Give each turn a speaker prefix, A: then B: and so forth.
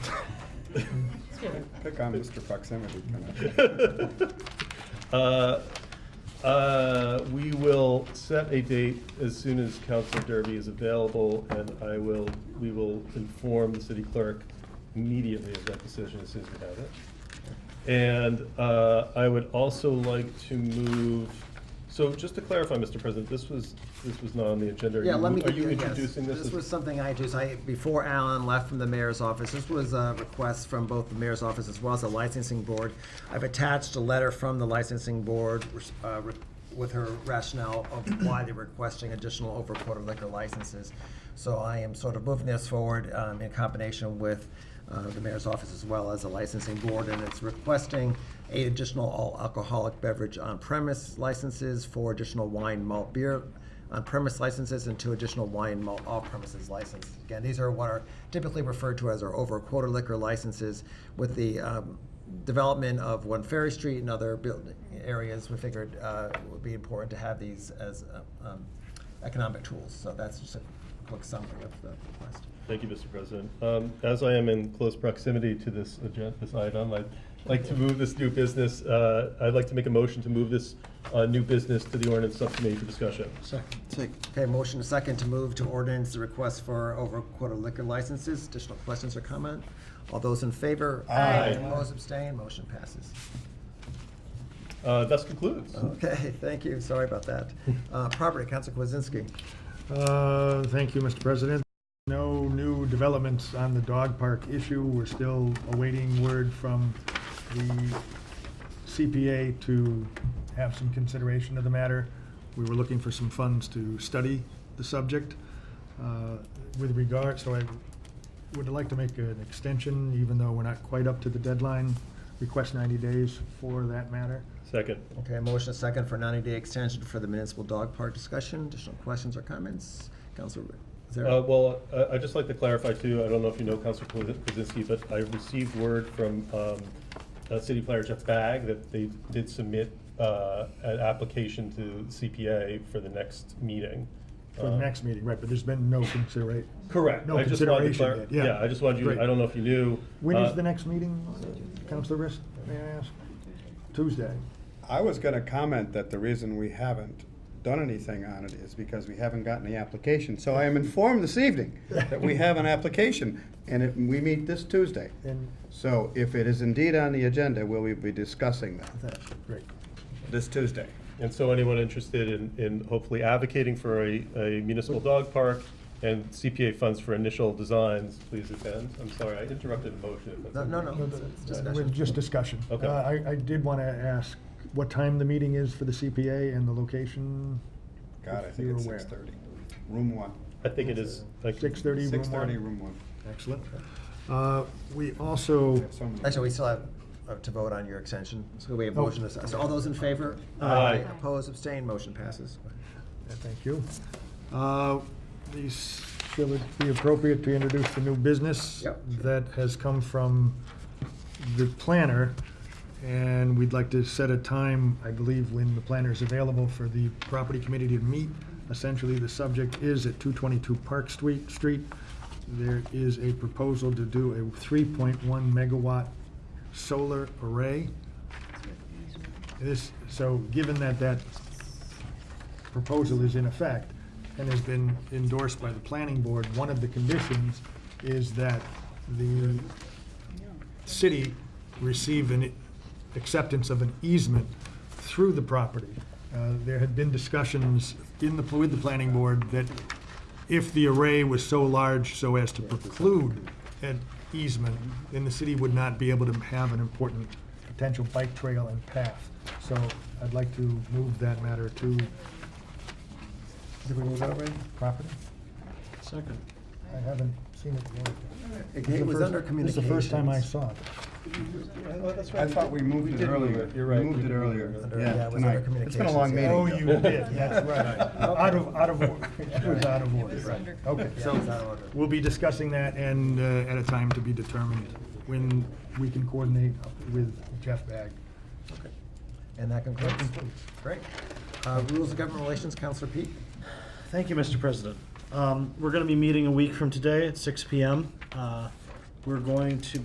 A: Pick on Mr. Proximity.
B: Uh, uh, We will set a date as soon as Counselor Derby is available, and I will, we will inform the city clerk immediately of that decision as soon as we have it. And uh, I would also like to move, so just to clarify, Mr. President, this was, this was not on the agenda. Are
C: Yeah, let
B: you-
C: me.
B: Are you
C: yes.
B: introducing this?
C: This
B: as-
C: was something I introduced, I, before Alan left from the mayor's office, this was a request from both the mayor's office as well as the licensing board. I've attached a letter from the licensing board, uh, with her rationale of why they're requesting additional over quarter liquor licenses. So I am sort of moving this forward, um, in combination with, uh, the mayor's office as well as the licensing board, and it's requesting eight additional all alcoholic beverage on premise licenses, four additional wine malt beer on-premise licenses and two additional wine and malt off-premises licenses. Again, these are what are typically referred to as our over-quarter liquor licenses. With the um, development of One Ferry Street and other building areas, we figured uh, it would be important to have these as uh, um, economic tools. So that's just a quick summary of the request.
B: Thank you, Mr. President. Um, As I am in close proximity to this agenda, this item, I'd like to move this new business, uh, I'd like to make a motion to move this uh, new business to the ordinance subcommittee for discussion.
C: Okay, motion and second to move to ordinance the request for over-quarter liquor licenses. Additional questions or comment? All those in favor?
B: Aye.
C: Opposed, abstained, motion passes.
B: Uh, Thus concludes.
D: Uh-huh.
C: Okay, thank you, sorry about that. Uh, Property, Council Kwasinski.
D: Uh, Thank you, Mr. President. No new developments on the dog park issue. We're still awaiting word from the CPA to have some consideration of the matter. We were looking for some funds to study the subject. Uh, With regard, so I would like to make an extension, even though we're not quite up to the deadline, request 90 days for that matter.
B: Second.
C: Okay, motion and second for 90-day extension for the municipal dog park discussion. Additional questions or comments? Councilor
B: Uh,
C: Zara?
B: Well, uh, I'd just like to clarify too, I don't know if you know Counselor Kwasin- Kwasinski, but I received word from um, uh, City Planner Jeff Bagg that they did submit uh, an application to CPA for the next meeting.
D: For the
B: Um,
D: next meeting, right, but there's been no consideration.
B: Correct.
D: No
B: I just wanted to
D: consideration
B: clar-
D: yet, yeah.
B: I just wanted you,
D: Great.
B: I don't know if you knew.
D: When
B: uh,
D: is the next meeting, Counselor Rist, may I ask? Tuesday.
A: I was gonna comment that the reason we haven't done anything on it is because we haven't gotten the application. So I am informed this evening that we have an application, and it- we meet this Tuesday.
D: And
A: So if it is indeed on the agenda, will we be discussing that
D: that's great.
A: this Tuesday?
B: And so anyone interested in, in hopefully advocating for a, a municipal dog park and CPA funds for initial designs, please attend. I'm sorry, I interrupted a motion. if that's
C: No, no,
B: okay.
C: no, it's- it's
D: Uh, we're
C: discussion.
D: Just discussion.
B: Okay.
D: Uh, I, I did want to ask what time the meeting is for the CPA and the location.
A: God, I
D: if
A: think
D: you're
A: it's
D: aware.
A: six thirty. Room one.
B: I think it is. I can-
D: 6:30, room
A: Six thirty,
D: one.
A: room one.
D: Excellent. Uh, We also,
A: I have so many.
C: Actually, we still have uh, to vote on your extension. So we have
D: Oh.
C: motion, so all those in favor?
B: Aye.
C: Opposed, abstained, motion passes.
D: Yeah, Thank you. Uh, These, will it be appropriate to introduce the new business?
C: Yep.
D: That has come from the planner, and we'd like to set a time, I believe, when the planner is available for the property committee to meet. Essentially, the subject is at 222 Park Street. Street. There is a proposal to do a 3.1 megawatt solar array. This, so given that that proposal is in effect and has been endorsed by the planning board, one of the conditions is that the city receive an acceptance of an easement through the property. Uh, There had been discussions in the, with the planning board that if the array was so large so as to preclude an easement, then the city would not be able to have an important potential bike trail and path. So I'd like to move that matter to did we move that way? Property?
E: Second.
D: I haven't seen it yet.
C: It was under
D: This is the
C: communications.
D: first time I saw it.
A: I thought we moved
B: did
A: it
B: move
A: earlier.
B: it. You're right.
A: We moved it earlier,
C: Under- yeah,
A: yeah,
C: it was under
A: tonight. It's been a long meeting.
D: Oh,
C: communications,
D: you
A: Joe.
D: did, that's right. Out of, out of order. It was out of order, right. Okay,
C: Yeah, it's out of
D: so
C: order.
D: we'll be discussing that and uh, at a time to be determined when we can coordinate with Jeff Bag.
C: And that concludes. Great. Uh, Rules of Government Relations, Counselor Peak.
E: Thank you, Mr. President. Um, We're going to be meeting a week from today at 6 PM. Uh, We're going to